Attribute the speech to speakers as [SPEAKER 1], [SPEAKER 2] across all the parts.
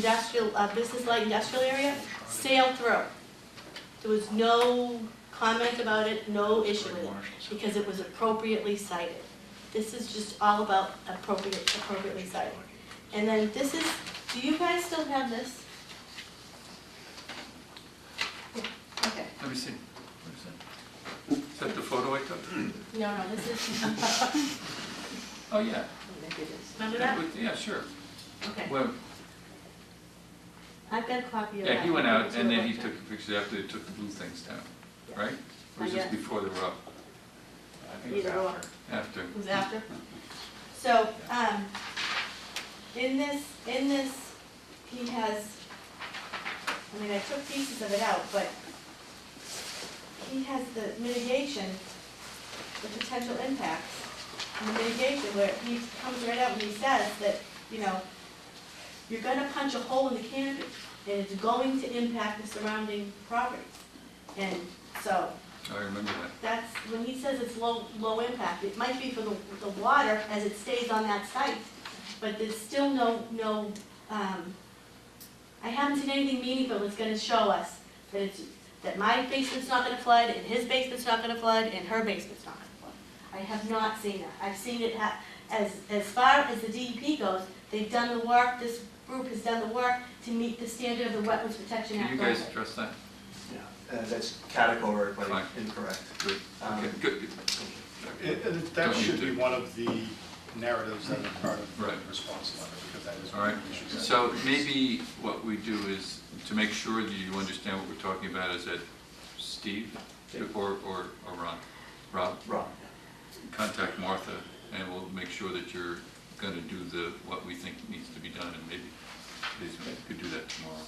[SPEAKER 1] industrial, uh, business light industrial area, sail through. There was no comment about it, no issue with it, because it was appropriately cited. This is just all about appropriate, appropriately cited. And then this is, do you guys still have this? Okay.
[SPEAKER 2] Let me see. What is that? Is that the photo I took?
[SPEAKER 1] No, no, this is,
[SPEAKER 2] Oh, yeah.
[SPEAKER 1] remember that?
[SPEAKER 2] would- Yeah, sure.
[SPEAKER 1] Okay,
[SPEAKER 2] Well,
[SPEAKER 1] I've got a copy of that.
[SPEAKER 2] yeah, he went out and then he took the pictures after they took the blue things down, right? Or was
[SPEAKER 1] I
[SPEAKER 2] this
[SPEAKER 1] guess.
[SPEAKER 2] before they were up?
[SPEAKER 1] Either or.
[SPEAKER 2] After.
[SPEAKER 1] It was after. So, um, in this, in this, he has, I mean, I took pieces of it out, but he has the mitigation, the potential impacts, and the mitigation where he comes right out and he says that, you know, you're gonna punch a hole in the canopy, and it's going to impact the surrounding properties. And so,
[SPEAKER 2] Oh, I remember that.
[SPEAKER 1] that's, when he says it's low, low impact, it might be for the, the water as it stays on that site, but there's still no, no, um, I haven't seen anything meaningful that's gonna show us that it's, that my basement's not gonna flood, and his basement's not gonna flood, and her basement's not gonna flood. I have not seen that. I've seen it ha- as, as far as the DEP goes, they've done the work, this group has done the work to meet the standard of the Wetlands Protection
[SPEAKER 2] Can
[SPEAKER 1] Act.
[SPEAKER 2] you guys
[SPEAKER 1] only.
[SPEAKER 2] address that?
[SPEAKER 3] Uh, That's categorically
[SPEAKER 2] Fine.
[SPEAKER 3] incorrect.
[SPEAKER 2] Good,
[SPEAKER 3] Um,
[SPEAKER 2] okay, good, good.
[SPEAKER 4] And and that
[SPEAKER 2] Don't you
[SPEAKER 4] should be
[SPEAKER 2] do-
[SPEAKER 4] one of the narratives that are part of the
[SPEAKER 2] Right.
[SPEAKER 4] response letter, because that is
[SPEAKER 2] All
[SPEAKER 4] one
[SPEAKER 2] right,
[SPEAKER 4] of the issues. that-
[SPEAKER 2] so maybe what we do is, to make sure that you understand what we're talking about, is that Steve or, or or Ron, Rob,
[SPEAKER 3] Wrong.
[SPEAKER 2] contact Martha, and we'll make sure that you're gonna do the, what we think needs to be done, and maybe, maybe we could do that tomorrow.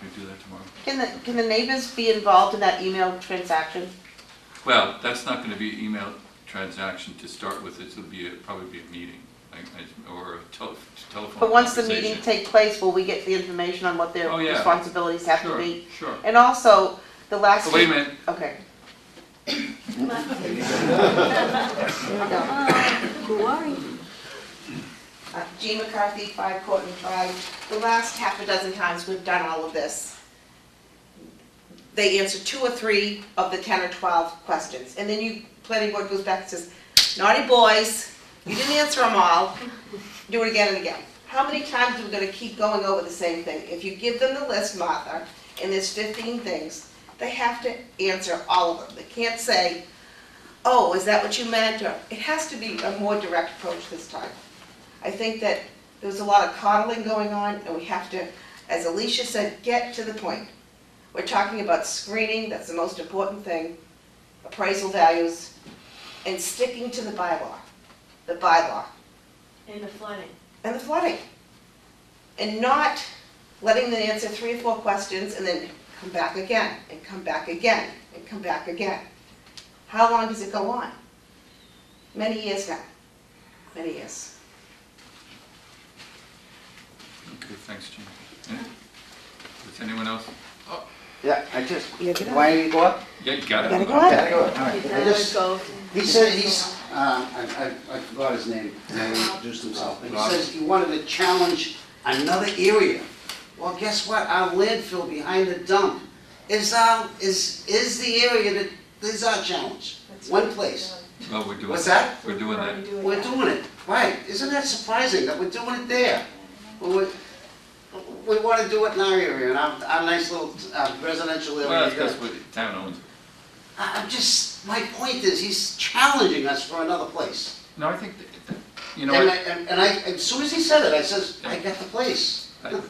[SPEAKER 2] Can we do that tomorrow?
[SPEAKER 5] Can the, can the neighbors be involved in that email transaction?
[SPEAKER 2] Well, that's not gonna be email transaction to start with, it'll be, a- probably be a meeting, like, I- or a tel- telephone
[SPEAKER 5] But once the
[SPEAKER 2] conversation.
[SPEAKER 5] meeting takes place, will we get the information on what their
[SPEAKER 2] Oh, yeah.
[SPEAKER 5] responsibilities have to be?
[SPEAKER 2] Sure, sure.
[SPEAKER 5] And also, the last.
[SPEAKER 2] Oh, Wait a minute,
[SPEAKER 5] Okay. Here we go.
[SPEAKER 6] Who are you?
[SPEAKER 5] Uh, Jean McCarthy, Five Courtney Drive. The last half a dozen times we've done all of this, they answer two or three of the 10 or 12 questions. And then you, planning board goes back and says, naughty boys, you didn't answer them all, do it again and again. How many times are we gonna keep going over the same thing? If you give them the list, Martha, and there's 15 things, they have to answer all of them. They can't say, oh, is that what you meant? Or, it has to be a more direct approach this time. I think that there was a lot of coddling going on, and we have to, as Alicia said, get to the point. We're talking about screening, that's the most important thing, appraisal values, and sticking to the bylaw, the bylaw,
[SPEAKER 1] In the flooding.
[SPEAKER 5] and the flooding. And not letting them answer three or four questions and then come back again, and come back again, and come back again. How long does it go on? Many years now, many years.
[SPEAKER 2] okay, thanks, Jim. Yeah? Does anyone else?
[SPEAKER 7] Yeah, I just,
[SPEAKER 5] Yeah, get up.
[SPEAKER 7] why do you go up?
[SPEAKER 2] Yeah, you got it.
[SPEAKER 5] Gotta go up.
[SPEAKER 7] Gotta go up, all right. I just,
[SPEAKER 1] Go.
[SPEAKER 7] he said he's, uh, I, I, I forgot his name, he introduced himself, but he
[SPEAKER 2] Rob.
[SPEAKER 7] says he wanted to challenge another area. Well, guess what, our landfill behind the dump is our, is, is the area that, is our challenge, one place.
[SPEAKER 2] Well, Oh, we're doing.
[SPEAKER 7] What's that?
[SPEAKER 2] We're doing that.
[SPEAKER 7] We're doing it, right, isn't that surprising that we're doing it there? But we, we wanna do it in our area, in our, our nice little uh, residential area.
[SPEAKER 2] Well, that's because what the town owns. it.
[SPEAKER 7] I- I'm just, my point is, he's challenging us for another place.
[SPEAKER 2] No, I think, that- that- you know,
[SPEAKER 7] And I,
[SPEAKER 2] what?
[SPEAKER 7] and and I, as soon as he said it, I says, I got the place.
[SPEAKER 2] I-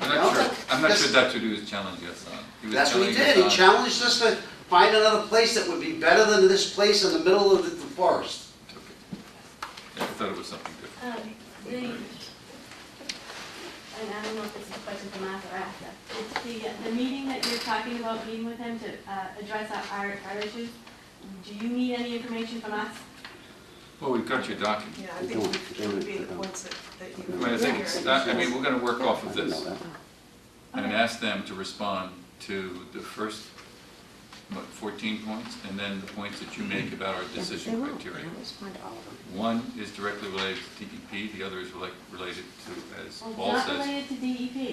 [SPEAKER 2] I'm not sure, I'm not sure
[SPEAKER 7] That's-
[SPEAKER 2] that's what he was challenging us on. uh, He was
[SPEAKER 7] That's what he
[SPEAKER 2] challenging
[SPEAKER 7] did, he
[SPEAKER 2] us uh, on
[SPEAKER 7] challenged us to find another place that would be better than this place in the middle of the the forest.
[SPEAKER 2] I thought it was something different.
[SPEAKER 1] Um, The, and I don't know if it's a question for Martha or after, it's the, uh, the meeting that you're talking about, meeting with him to uh, address our- our, our issues, do you need any information from us?
[SPEAKER 2] Well, we've got your document.
[SPEAKER 6] Yeah, I think it would be the points that, that
[SPEAKER 2] I
[SPEAKER 6] you.
[SPEAKER 2] mean, I think, it's not- I mean, we're gonna work off of this and
[SPEAKER 1] Okay.
[SPEAKER 2] ask them to respond to the first, what, fourteen points? And then the points that you make about our decision criteria. One is directly related to DEP, the other is relate- related to, as
[SPEAKER 1] Well, it's
[SPEAKER 2] Paul
[SPEAKER 1] not
[SPEAKER 2] says,
[SPEAKER 1] related to E DEP,